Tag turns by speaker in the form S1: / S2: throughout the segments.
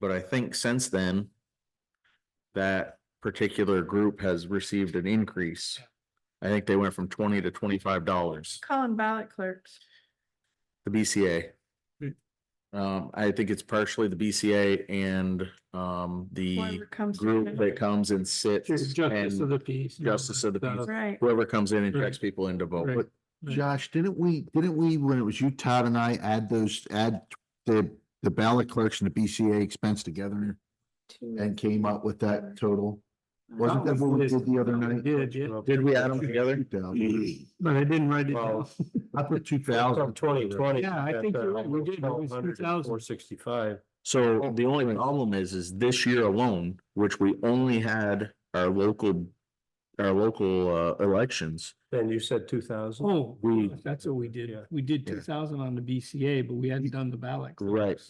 S1: But I think since then, that particular group has received an increase. I think they went from twenty to twenty-five dollars,
S2: Calling ballot clerks.
S1: the BCA.
S3: Hmm.
S1: Um, I think it's partially the BCA and, um, the
S2: whoever comes to
S1: group that
S2: it.
S1: comes and sits
S3: It's justice of
S1: and
S3: the peace. you know,
S1: justice of the peace.
S2: Right,
S1: whoever comes in and
S3: Right.
S1: checks people in to vote.
S3: Right.
S1: But
S3: Right.
S4: Josh, didn't we, didn't we, when it was you, Todd and I, add those, add the, the ballot clerks and the BCA expense together
S2: two.
S4: and came up with that total? Wasn't that
S3: Oh,
S4: what we
S3: it is.
S4: did the other night?
S3: Did, yeah,
S1: Did we add them together?
S4: 2,000.
S3: but I didn't write it down.
S5: Well,
S4: I put two thousand.
S5: twenty twenty.
S3: Yeah, I think you're right, we did, it was two thousand.
S5: Four sixty-five.
S1: So the only problem is, is this year alone, which we only had our local, our local uh elections.
S5: Then you said two thousand?
S3: Oh,
S1: We-
S3: that's what we did.
S5: Yeah.
S3: We did
S4: Yeah.
S3: two thousand on the BCA, but we hadn't done the ballot.
S1: Right.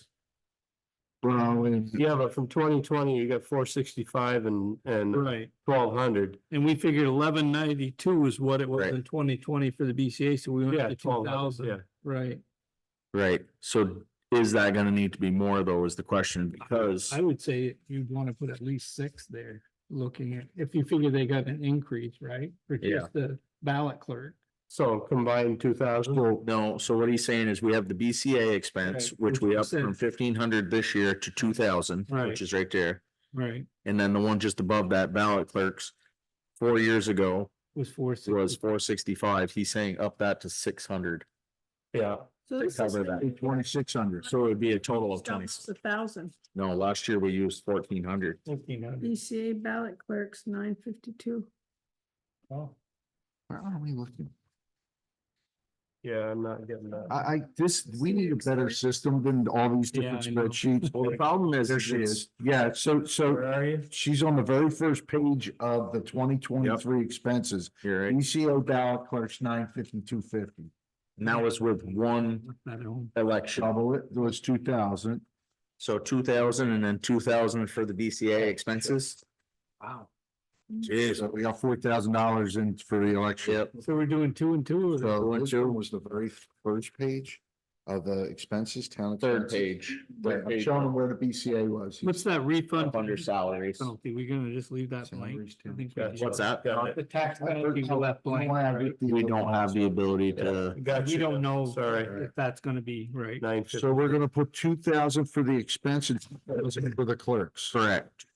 S4: Well, and-
S5: Yeah, but from twenty twenty, you got four sixty-five and, and
S3: Right,
S5: twelve hundred.
S3: and we figured eleven ninety-two is what it was
S1: Right.
S3: in twenty twenty for the BCA, so we went
S5: Yeah,
S3: to two
S5: twelve hundred, yeah.
S3: thousand, right?
S1: Right, so is that gonna need to be more though is the question because,
S3: I would say you'd want to put at least six there, looking at, if you figure they got an increase, right? For
S1: Yeah.
S3: just the ballot clerk.
S5: So combined two thousand,
S1: well, no, so what he's saying is we have the BCA expense,
S3: Right,
S1: which
S3: which
S1: we
S3: we
S1: up from fifteen hundred this year to two thousand,
S3: Right.
S1: which is right there.
S3: Right.
S1: And then the one just above that ballot clerks, four years ago
S3: Was four.
S1: was four sixty-five. He's saying up that to six hundred.
S5: yeah.
S2: So this is
S1: cover that.
S4: twenty-six hundred.
S1: So it would be a total of
S2: almost
S1: twenty.
S2: A thousand.
S1: No, last year we used fourteen hundred.
S3: Fifteen hundred.
S2: BCA ballot clerks, nine fifty-two.
S4: Where are we looking?
S5: Yeah, I'm not getting that.
S4: I, I, this, we need a better system than all these different
S3: Yeah, I know.
S4: spreadsheets.
S1: Well, the problem is,
S4: There she is. Yeah, so, so
S5: are you?
S4: she's on the very first page of the twenty twenty-three expenses.
S1: You're right.
S4: BCO ballot clerks nine fifty, two fifty.
S1: And that was with one
S3: Not at home.
S1: election.
S4: Double it, it was two thousand.
S1: So two thousand and then two thousand for the BCA expenses.
S5: Wow.
S1: Jeez.
S4: We got four thousand dollars in for the election.
S1: Yep.
S3: So we're doing two and two of
S4: So
S3: them.
S4: this one was the very first page of the expenses, town.
S1: Third
S4: expenses.
S1: page.
S4: Right,
S1: Third
S4: I'm
S1: page.
S4: showing them where the BCA was.
S3: What's that refund?
S1: Up under salaries.
S3: Penalty, we're gonna just leave that blank.
S4: Salaries
S3: I
S4: too.
S3: think we
S5: Gotcha.
S3: did.
S1: What's that?
S5: Got it.
S3: The tax penalty we left blank. right?
S1: We don't have the ability to,
S5: Gotcha.
S3: We don't know.
S5: Sorry.
S3: If that's gonna be right.
S5: Nine fifty.
S4: So we're gonna put two thousand for the expenses for the clerks.
S1: correct.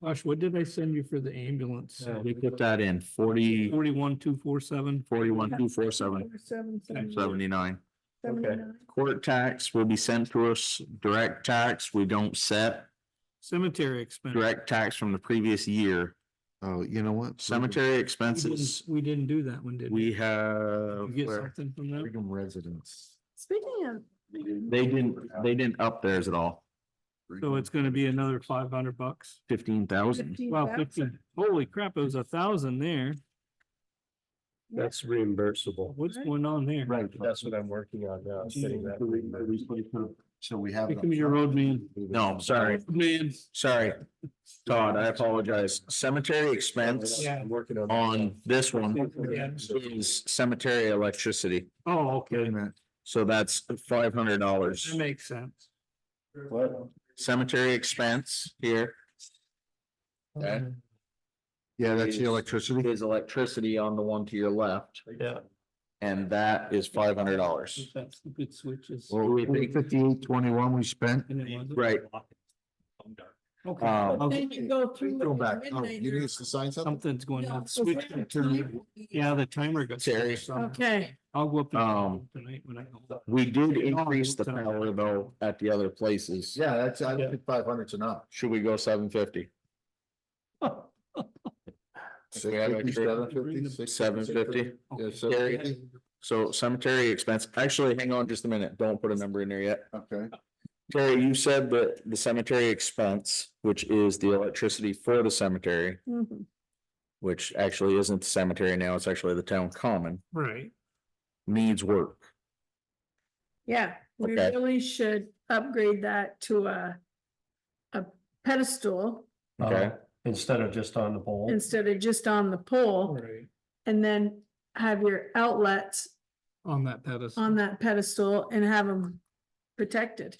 S3: Gosh, what did I send you for the ambulance?
S5: Yeah.
S1: We put that in forty,
S3: Forty-one, two, four, seven.
S1: forty-one, two, four, seven,
S2: Seven, seven,
S1: seventy-nine.
S2: seventy-nine.
S1: Court tax will be sent to us, direct tax, we don't set,
S3: Cemetery expense.
S1: direct tax from the previous year.
S4: Oh, you know what?
S1: Cemetery
S3: We didn't-
S1: expenses,
S3: We didn't do that one, did we?
S1: we have.
S3: You get
S1: where?
S3: something from them?
S4: Freedom residents.
S2: Speaking of,
S1: They didn't, they didn't up theirs at all,
S3: So it's gonna be another five hundred bucks.
S1: fifteen thousand.
S2: fifteen
S3: Wow,
S2: thousand,
S3: fifteen, holy crap, it was a thousand there.
S5: That's reimbursable.
S3: What's
S2: Right.
S3: going on there?
S4: Right.
S5: That's what I'm working on now. I'm getting that reimbursed.
S4: So we have.
S3: Become your road man.
S1: No, sorry,
S3: Man,
S1: sorry, Todd, I apologize. Cemetery expense
S3: Yeah.
S5: I'm working on.
S1: on this one
S3: Yeah.
S1: is cemetery electricity,
S3: oh,
S4: Wait
S3: okay,
S4: a minute.
S1: so that's five hundred
S3: that
S1: dollars.
S3: makes sense.
S5: What?
S1: Cemetery expense here Okay.
S3: Mm-hmm.
S4: Yeah, that's the electricity.
S1: is electricity on the one to your left,
S5: Yeah.
S1: and that is five hundred dollars.
S3: That's the good switches.
S4: Well,
S1: we think-
S4: fifty-eight twenty-one we spent.
S3: And it wasn't?
S1: Right,
S3: Okay.
S1: Um,
S3: Okay,
S2: then you go through.
S4: Go
S2: with the
S4: back. Oh,
S2: midnight
S4: you
S2: hour.
S4: need us to sign something?
S3: Something's going
S2: No,
S3: on.
S2: so
S3: Switch.
S2: we're at
S4: turn-
S2: time.
S3: Yeah, the timer got.
S1: Terry.
S2: Okay,
S3: I'll go up. and-
S1: Um,
S3: Tonight when I go.
S1: we did increase the power though at the other places.
S4: Yeah, that's, I think five hundred's enough.
S1: Should we go seven fifty?
S4: Six
S1: Yeah,
S4: fifty,
S1: like-
S4: seven fifty, six-
S1: Seven fifty?
S4: Yeah,
S3: Okay.
S4: seven
S1: Gary?
S4: fifty,
S1: So cemetery expense, actually, hang on just a minute, don't put a number in there yet.
S4: okay.
S1: Terry, you said that the cemetery expense, which is the electricity for the cemetery,
S2: mhm.
S1: which actually isn't the cemetery now, it's actually the town common,
S3: Right,
S1: needs work.
S2: yeah, we
S1: Okay.
S2: really should upgrade that to a, a pedestal
S5: Uh-huh.
S1: Okay,
S5: Instead of just on the bowl.
S2: instead of just on the pole.
S3: right,
S2: And then have your outlets
S3: on that pedestal.
S2: on that pedestal and have them protected.